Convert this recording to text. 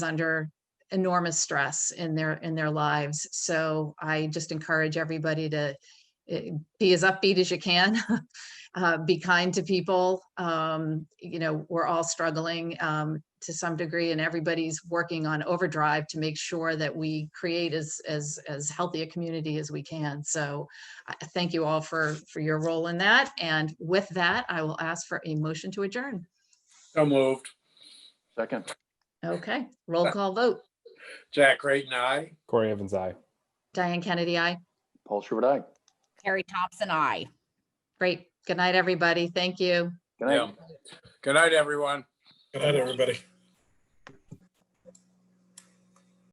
under enormous stress in their, in their lives. So I just encourage everybody to eh, be as upbeat as you can. uh, Be kind to people. Um, You know, we're all struggling um, to some degree and everybody's working on overdrive to make sure that we create as, as, as healthy a community as we can. So I I thank you all for, for your role in that. And with that, I will ask for a motion to adjourn. So moved. Second, Okay, roll call vote. Jack Creighton, aye. Corey Evans, I. Diane Kennedy, I. Paul Schubert, aye. Terry Thompson, I. Great. Good night, everybody. Thank you. Good night. Yeah. Good night, everyone. Good night, everybody.